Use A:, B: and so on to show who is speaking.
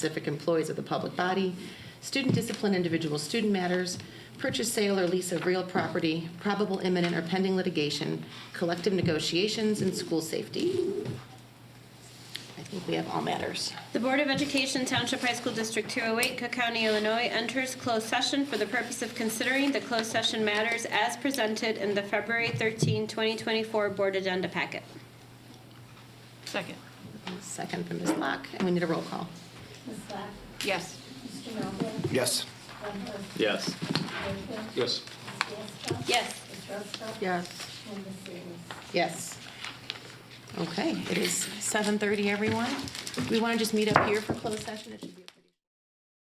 A: specific employees of the public body, student discipline, individual student matters, purchase, sale, or lease of real property, probable imminent or pending litigation, collective negotiations, and school safety. I think we have all matters.
B: The Board of Education Township High School District 208, Cook County, Illinois enters closed session for the purpose of considering the closed session matters as presented in the February 13, 2024 Board Agenda Packet.
C: Second.
A: Second from Ms. Locke, and we need a roll call.
D: Ms. Black?
C: Yes.
D: Mr. Malbert?
E: Yes.
D: Lundberg?
F: Yes.
D: Baker?
F: Yes.
D: Ms. Gasko?
B: Yes.
D: Ms. Ruska?
A: Yes.
D: And Ms. Sealy?
A: Yes. Okay, it is 7:30, everyone. We want to just meet up here for closed session. It should be.